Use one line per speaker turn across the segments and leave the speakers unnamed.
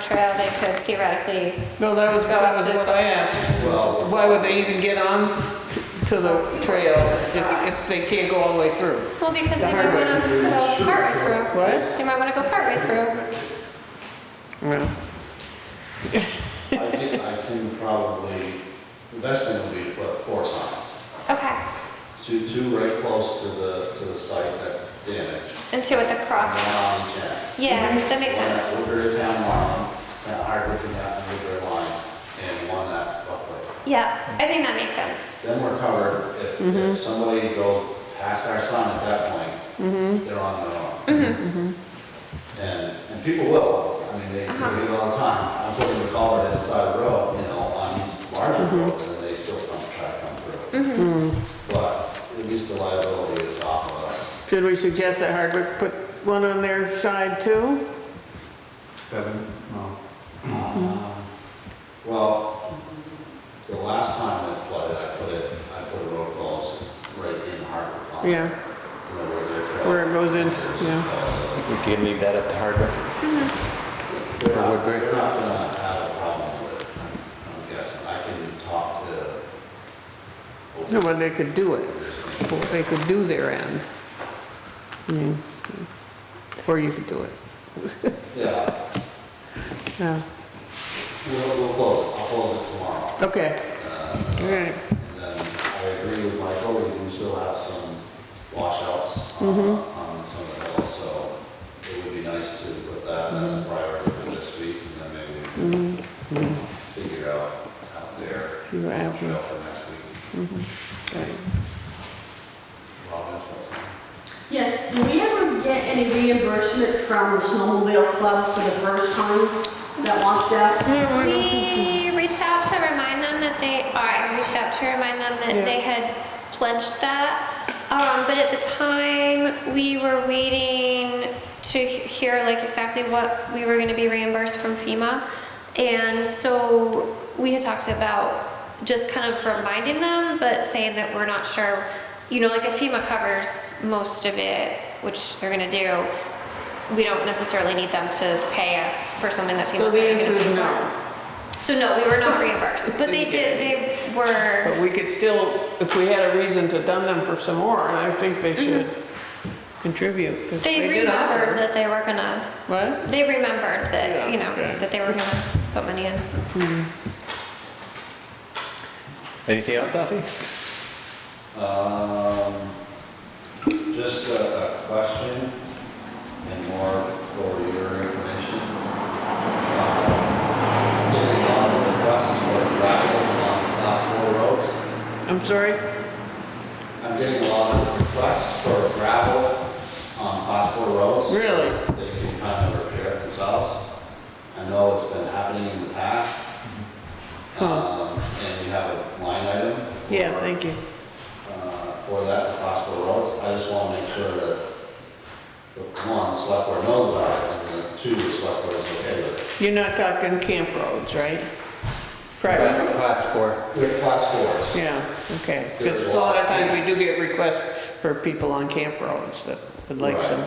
trail, they could theoretically,
No, that was,
Go
that
up
was
to
what
the-
I asked.
Well,
Why would they even get on t- to the trail if, if they can't go all the way through?
well, because they
The
might
hard way.
want to go partway through.
What?
They might want to go partway through.
Well,
I can, I can probably, the best thing would be to put four signs.
Okay,
Two, two right close to the, to the site that's damaged.
and two at the
One
cross.
on each end.
Yeah, that makes
One at
sense.
Woodbury Town Line, kind of hard looking at the Woodbury Line, and one at Buckley.
Yeah, I think that makes sense.
Then we're covered, if, if somebody goes past our sign at that point, they're on their own. Mm-hmm. And, and people will, I mean, they, they do it all the time. I'm putting the culvert inside the road, you know, on these larger roads, and they still come, try to come through. But at least the liability is off of us.
should we suggest that Hardwick put one on their side too?
Kevin? No. Um, Well, the last time it flooded, I put it, I put a road closed right in Hartwick. Pond.
Yeah.
You know, where their trail-
Where it goes into-
there's,
yeah.
uh,
We can leave that up to Hardwick.
They're not,
Woodbury.
they're not gonna have a problem with it, I'm I'm guessing, I can talk to.
No, well, they could do it, Well, they could do their end. I mean, Or you could do it,
Yeah,
yeah,
we'll, we'll close it, I'll close it tomorrow.
okay, all
Uh,
right,
And then I agree with Michael, we do still have some washouts on,
Mm-hmm.
on some of the hills, so it would be nice to put that as
Mm-hmm.
a priority for this week, and then maybe we can
Mm-hmm.
figure out out there.
See what
what trail
happens.
for next week.
all right.
Robin's what's on.
Yeah, do we ever get any reimbursement from the snowmobile club for the first time that washed out?
We reached out to remind them that they, or I reached out to remind them
Yeah.
that they had pledged that. Um, but at the time, we were waiting to he- hear like exactly what we were gonna be reimbursed from FEMA. And so we had talked about just kind of reminding them, but saying that we're not sure, you know, like if FEMA covers most of it, which they're gonna do, we don't necessarily need them to pay us for something that FEMA's
So
not
the
gonna
answer
pay
is
for.
no,
So no, we were not reimbursed, but they did, they were,
but we could still, if we had a reason to dun them for some more, I think they should contribute. 'cause
Mm-hmm. they
did offer.
remembered that they were gonna,
What?
they remembered that, you know,
Yeah, okay.
that they were gonna put money in.
Anything else, Alfie?
Um, just a, a question and more for your information. Um, Getting a lot of requests for gravel on class four roads.
I'm sorry?
I'm getting a lot of requests for gravel on class four roads.
Really?
They can kind of repair it themselves. I know it's been happening in the past.
Huh.
Um, and you have a line item. for-
Yeah, thank you.
uh, for that, for possible roads. I just want to make sure that, the one, the select board knows about it, and the two, the select board is okay with it.
You're not talking camp roads, right? Private roads?
Class four.
They're class fours.
Yeah, okay. Because a lot of times we do get requests for people on camp roads that would like some.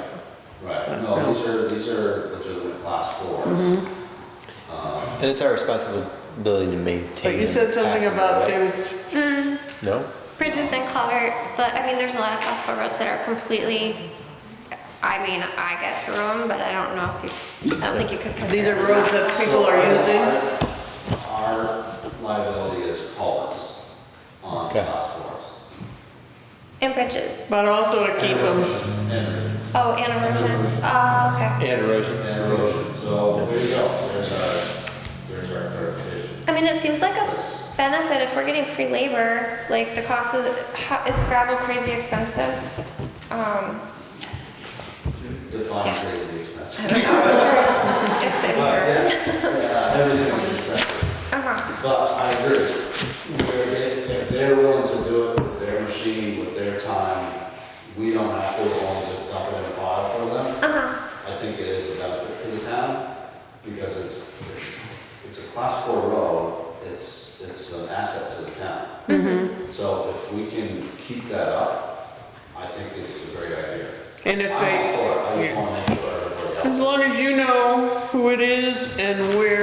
Right.
Uh,
Right, no, these are, these are legitimate class
Mm-hmm.
fours. Um,
And it's our responsibility to maintain.
But you said something
passing,
about
right?
there's,
Mm,
No?
Bridges and culverts, but I mean, there's a lot of class four roads that are completely, I mean, I get through them, but I don't know if you, I don't think you could.
these are
consider
roads that people are using?
Our- Our liability is culverts on
Okay.
class fours.
And bridges,
But also to keep them,
And
oh, and erosion, oh, okay.
And erosion.
and erosion, so there you go, there's our, there's our clarification.
I mean, it seems like a benefit if we're getting free labor, like the cost of, how, is gravel crazy expensive? Um,
Define
Yeah.
crazy expensive.
I don't know, I'm sure it's, it's in
But,
there.
yeah, everything is expensive.
Uh-huh,
But I agree, Where they- if they're willing to do it with their machine, with their time, we don't have to, we're only just dump it in a pile for them.
uh-huh,
I think it is a benefit to the town, because it's, it's, it's a class four road, it's, it's an asset to the town.
Mm-hmm.
So if we can keep that up, I think it's a great idea.
and if
I'm all
they,
for it, I just
yeah.
wanna make sure everybody
As long as you know who it is and where